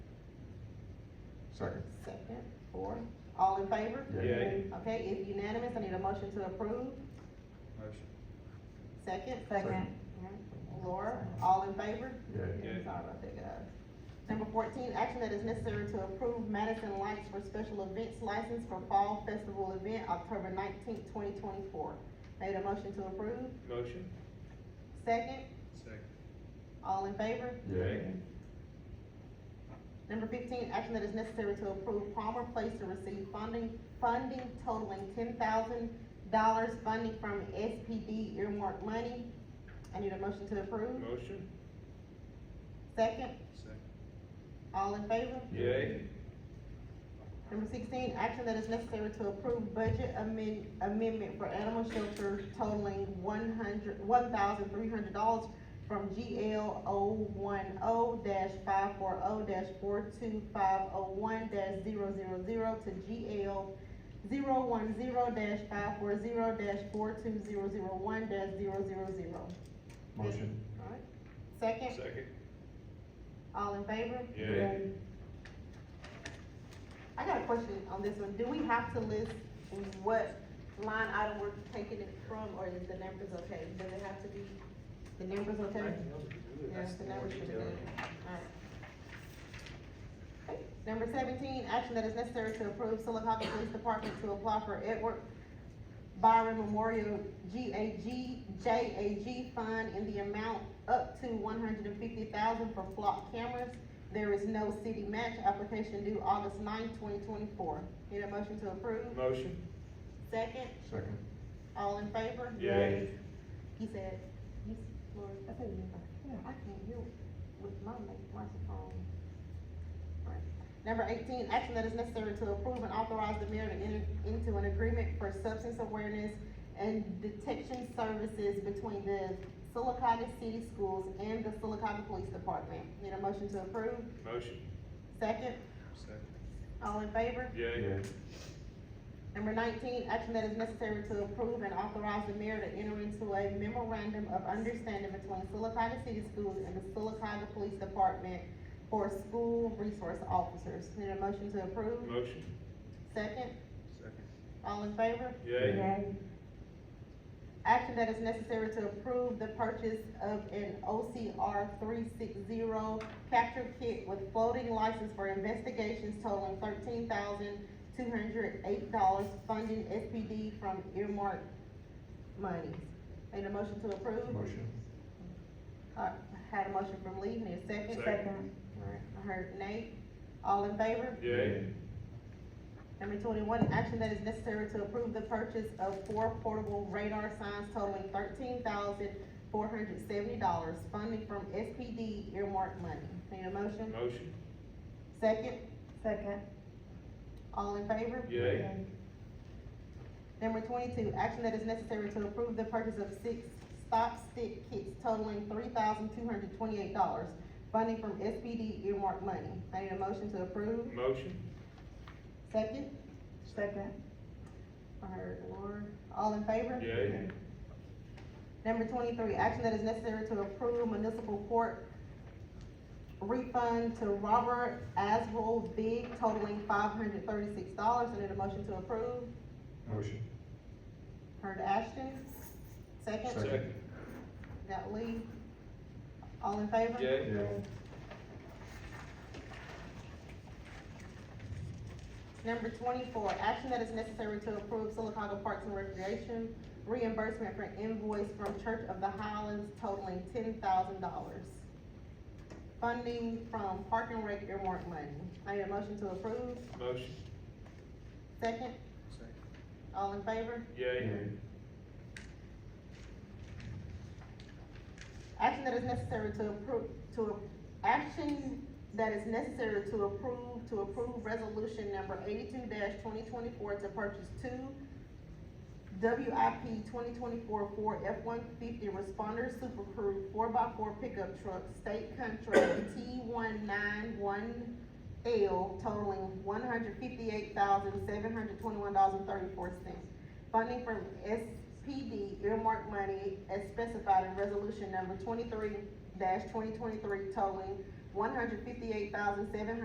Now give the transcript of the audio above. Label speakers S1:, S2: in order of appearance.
S1: Second.
S2: Second, four, all in favor?
S1: Yay.
S3: Yay.
S2: Okay, it's unanimous, I need a motion to approve,
S3: Motion.
S2: second?
S1: Second.
S2: Alright. Laura, all in favor?
S1: Yay.
S3: Yay.
S2: Sorry about that, guys. Number fourteen, action that is necessary to approve Madison Lights for special events license for Fall Festival event, October nineteenth, twenty twenty-four. Made a motion to approve,
S3: Motion.
S2: second,
S3: Second.
S2: all in favor?
S1: Yay.
S2: Number fifteen, action that is necessary to approve Palmer Place to receive funding, funding totaling ten thousand dollars funding from SPD earmark money. I need a motion to approve.
S3: Motion.
S2: Second,
S3: Second.
S2: all in favor?
S3: Yay.
S2: Number sixteen, action that is necessary to approve budget amend, amendment for animal shelter totaling one hundred, one thousand three hundred dollars from GL O one O dash five four O dash four two five oh one dash zero zero zero to GL zero one zero dash five four zero dash four two zero zero one dash zero zero zero.
S1: Motion.
S2: Second,
S3: Second.
S2: all in favor?
S3: Yay.
S2: I got a question on this one, do we have to list what line item we're taking it from, or is the numbers okay? Does it have to be, the numbers okay? Yes, the numbers should be good. Alright. Okay, Number seventeen, action that is necessary to approve Silicotta Police Department to apply for Edward Byron Memorial GAG, JAG Fund in the amount up to one hundred and fifty thousand for flock cameras. There is no city match, application due August 9th, twenty twenty-four. Need a motion to approve?
S3: Motion.
S2: Second,
S1: Second.
S2: all in favor?
S3: Yay.
S2: He said, yes, Lord, I said, yeah, I can't hear with my mic- microphone. Right. Number eighteen, action that is necessary to approve and authorize the mayor to enter into an agreement for substance awareness and detection services between the Silicotta City Schools and the Silicotta Police Department. Need a motion to approve?
S3: Motion.
S2: Second,
S3: Second.
S2: all in favor?
S3: Yay.
S1: Yay.
S2: Number nineteen, action that is necessary to approve and authorize the mayor to enter into a memorandum of understanding between Silicotta City Schools and the Silicotta Police Department for school resource officers. Need a motion to approve?
S3: Motion.
S2: Second,
S3: Second.
S2: all in favor?
S3: Yay.
S2: Action that is necessary to approve the purchase of an OCR three six zero capture kit with floating license for investigations totaling thirteen thousand two hundred eight dollars funding SPD from earmark monies. Need a motion to approve?
S1: Motion.
S2: Uh, had a motion from Lee, need a second?
S3: Second.
S2: Alright, I heard Nate, all in favor?
S3: Yay.
S2: Number twenty-one, action that is necessary to approve the purchase of four portable radar signs totaling thirteen thousand four hundred seventy dollars, funding from SPD earmark money. Need a motion?
S3: Motion.
S2: Second,
S4: Second.
S2: all in favor?
S3: Yay.
S2: Number twenty-two, action that is necessary to approve the purchase of six stop stick kits totaling three thousand two hundred twenty-eight dollars, funding from SPD earmark money. I need a motion to approve.
S3: Motion.
S2: Second,
S4: Second.
S2: I heard Laura, all in favor?
S3: Yay.
S2: Number twenty-three, action that is necessary to approve municipal court refund to Robert Aswell Big totaling five hundred thirty-six dollars. I need a motion to approve.
S1: Motion.
S2: Heard Ashton, second.
S3: Second.
S2: Got Lee. All in favor?
S3: Yay.
S1: Yay.
S2: Number twenty-four, action that is necessary to approve Silicaca Parks and Recreation reimbursement for invoice from Church of the Highlands totaling ten thousand dollars. Funding from Park and Rec earmark money. I need a motion to approve.
S3: Motion.
S2: Second,
S3: Second.
S2: all in favor?
S3: Yay.
S1: Yay.
S2: Action that is necessary to approve, to, action that is necessary to approve, to approve resolution number eighty-two twenty twenty-four to purchase two WIP twenty twenty-four Ford F one fifty responder super crew four by four pickup truck, state contract T one nine one L totaling one hundred fifty-eight thousand, seven hundred twenty-one dollars and thirty-four cents. Funding from SPD earmark money as specified in resolution number twenty-three twenty twenty-three totaling one hundred fifty-eight thousand, seven hundred